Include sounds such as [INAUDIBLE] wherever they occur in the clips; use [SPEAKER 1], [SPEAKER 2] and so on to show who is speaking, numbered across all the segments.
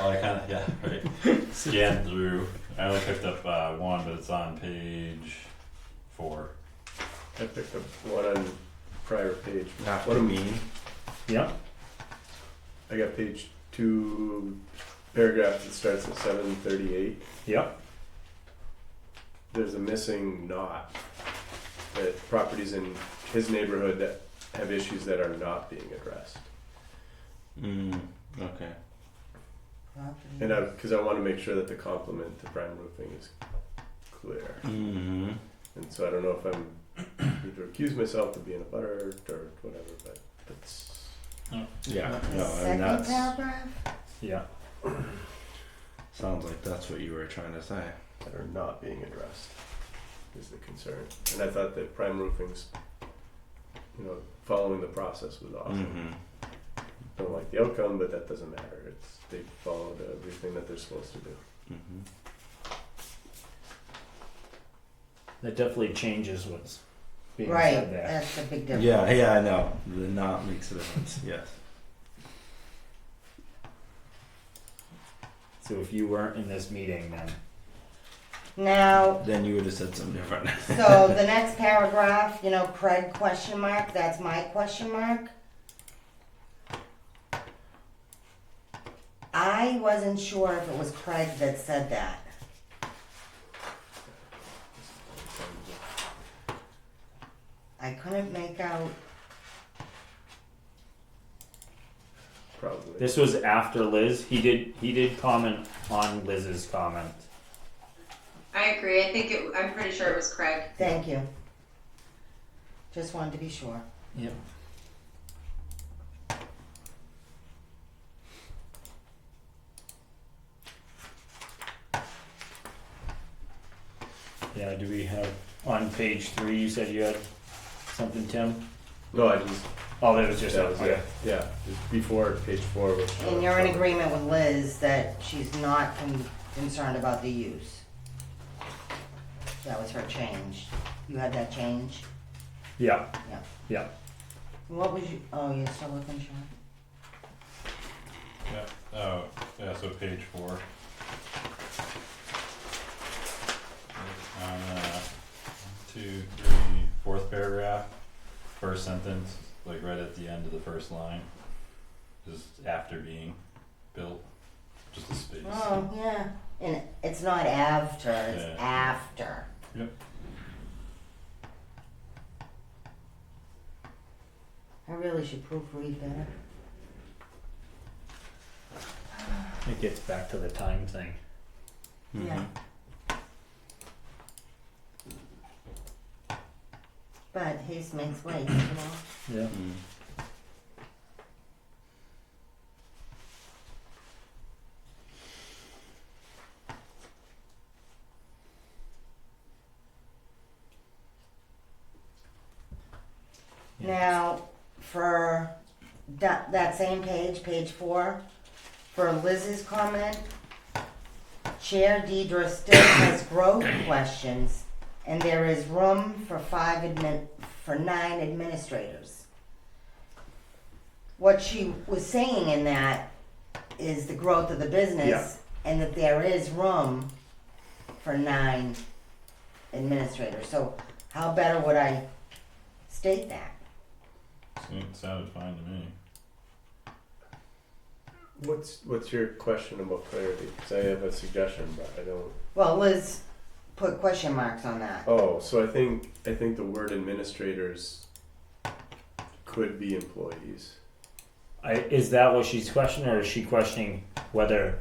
[SPEAKER 1] I kind of yeah [LAUGHS] right. Scanned through. I only picked up uh, one, but it's on page four.
[SPEAKER 2] I picked up one on prior page.
[SPEAKER 3] Not what I mean.
[SPEAKER 2] Yeah. I got page two, paragraph that starts at seven thirty-eight.
[SPEAKER 4] Yep.
[SPEAKER 2] There's a missing knot. That properties in his neighborhood that have issues that are not being addressed.
[SPEAKER 3] Mm, okay.
[SPEAKER 5] Hmm.
[SPEAKER 2] And I, because I want to make sure that the complement to prime roofing is clear.
[SPEAKER 3] Mm-hmm.
[SPEAKER 2] And so I don't know if I'm [COUGHS] need to accuse myself of being a butter or whatever, but that's.
[SPEAKER 3] Yeah.
[SPEAKER 5] The
[SPEAKER 3] No, I mean
[SPEAKER 5] second
[SPEAKER 3] that's
[SPEAKER 5] paragraph?
[SPEAKER 4] Yeah.
[SPEAKER 3] sounds like that's what you were trying to say.
[SPEAKER 2] that are not being addressed is the concern. And I thought that prime roofing's, you know, following the process was awesome.
[SPEAKER 3] Mm-hmm.
[SPEAKER 2] Don't like the outcome, but that doesn't matter. It's they followed everything that they're supposed to do.
[SPEAKER 3] Mm-hmm.
[SPEAKER 4] That definitely changes what's being
[SPEAKER 5] Right,
[SPEAKER 4] said there.
[SPEAKER 5] that's a big difference.
[SPEAKER 3] Yeah, yeah, I know. The not makes a difference. Yes.
[SPEAKER 4] So if you weren't in this meeting, then
[SPEAKER 5] Now,
[SPEAKER 3] Then you would have said something different.
[SPEAKER 5] so the next paragraph, you know, Craig question mark, that's my question mark. I wasn't sure if it was Craig that said that. I couldn't make out,
[SPEAKER 2] Probably.
[SPEAKER 4] this was after Liz. He did he did comment on Liz's comment.
[SPEAKER 6] I agree. I think it, I'm pretty sure it was Craig.
[SPEAKER 5] thank you. Just wanted to be sure.
[SPEAKER 4] Yep. Yeah, do we have on page three you said you had something, Tim?
[SPEAKER 2] no, I just
[SPEAKER 4] Oh that was just
[SPEAKER 2] that was
[SPEAKER 4] okay.
[SPEAKER 2] it. Yeah, just before page four. Which
[SPEAKER 5] And you're in agreement with Liz that she's not con- concerned about the use? That was her change. You had that change?
[SPEAKER 4] Yeah.
[SPEAKER 5] What was you, oh, you're still looking, Sean?
[SPEAKER 1] Yeah. Oh yeah. So page four. On uh, two, three, fourth paragraph, first sentence, like right at the end of the first line, is after being built, just a space.
[SPEAKER 5] Oh, yeah. And it's not after,
[SPEAKER 1] Yeah.
[SPEAKER 5] it's after.
[SPEAKER 1] Yep.
[SPEAKER 5] I really should proofread better.
[SPEAKER 4] It gets back to the time thing.
[SPEAKER 1] Mm-hmm.
[SPEAKER 5] Yeah.
[SPEAKER 3] Mm-hmm.
[SPEAKER 5] But haste makes waste, you know?
[SPEAKER 4] Yeah.
[SPEAKER 3] Mm.
[SPEAKER 4] Yeah.
[SPEAKER 5] Now, for that, that same page, page four, for Liz's comment, Chair Deidre still has growth [COUGHS] questions, and there is room for five admin, for nine administrators. What she was saying in that is the growth of the business, and that there is room for nine administrators. So how better would I state that?
[SPEAKER 1] Seemed- Sounded fine to me.
[SPEAKER 2] What's what's your question about clarity? Because I have a suggestion, but I don't.
[SPEAKER 5] Well, Liz put question marks on that.
[SPEAKER 2] Oh, so I think I think the word administrators could be employees.
[SPEAKER 4] I, is that what she's questioning, or is she questioning whether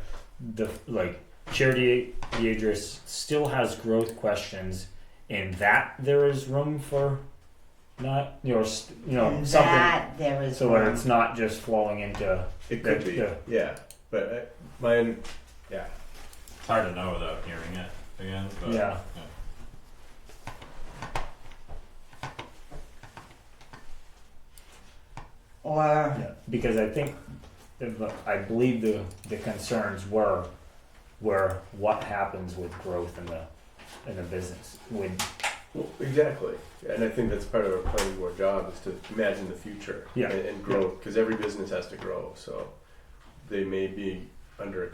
[SPEAKER 4] the like Charity Deidris still has growth questions, and that there is room for not you know st- you know
[SPEAKER 5] and
[SPEAKER 4] something
[SPEAKER 5] that there is
[SPEAKER 4] so
[SPEAKER 5] one.
[SPEAKER 4] where it's not just flowing into
[SPEAKER 2] It could
[SPEAKER 4] That-
[SPEAKER 2] be,
[SPEAKER 4] yeah.
[SPEAKER 2] yeah. But I, my, yeah.
[SPEAKER 1] It's hard to know without hearing it again. But
[SPEAKER 4] yeah
[SPEAKER 5] or
[SPEAKER 4] yeah because I think if- I believe the the concerns were were what happens with growth in the in the business with
[SPEAKER 2] Well, exactly. And I think that's part of our planning board job is to imagine the future
[SPEAKER 4] Yeah.
[SPEAKER 2] and, and grow because every business has to grow. So they may be under a